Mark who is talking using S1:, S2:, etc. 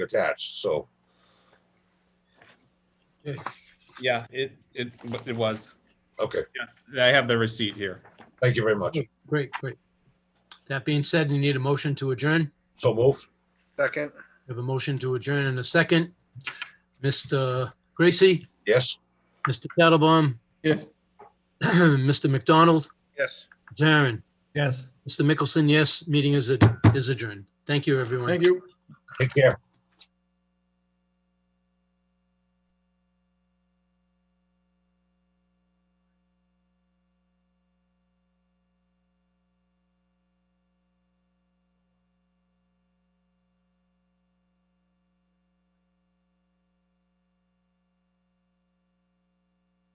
S1: attached, so.
S2: Yeah, it, it, it was.
S1: Okay,
S2: Yes, I have the receipt here.
S1: thank you very much.
S3: Great, great. That being said, we need a motion to adjourn.
S1: So moved.
S4: Second,
S3: We have a motion to adjourn in a second. Mr. Gracie,
S1: Yes,
S3: Mr. Tattlebaum,
S5: Yes.
S3: Mr. McDonald,
S4: yes.
S3: Darren,
S5: Yes.
S3: Mr. Mickelson, yes, meeting is ad- is adjourned. Thank you, everyone.
S5: Thank you.
S1: take care.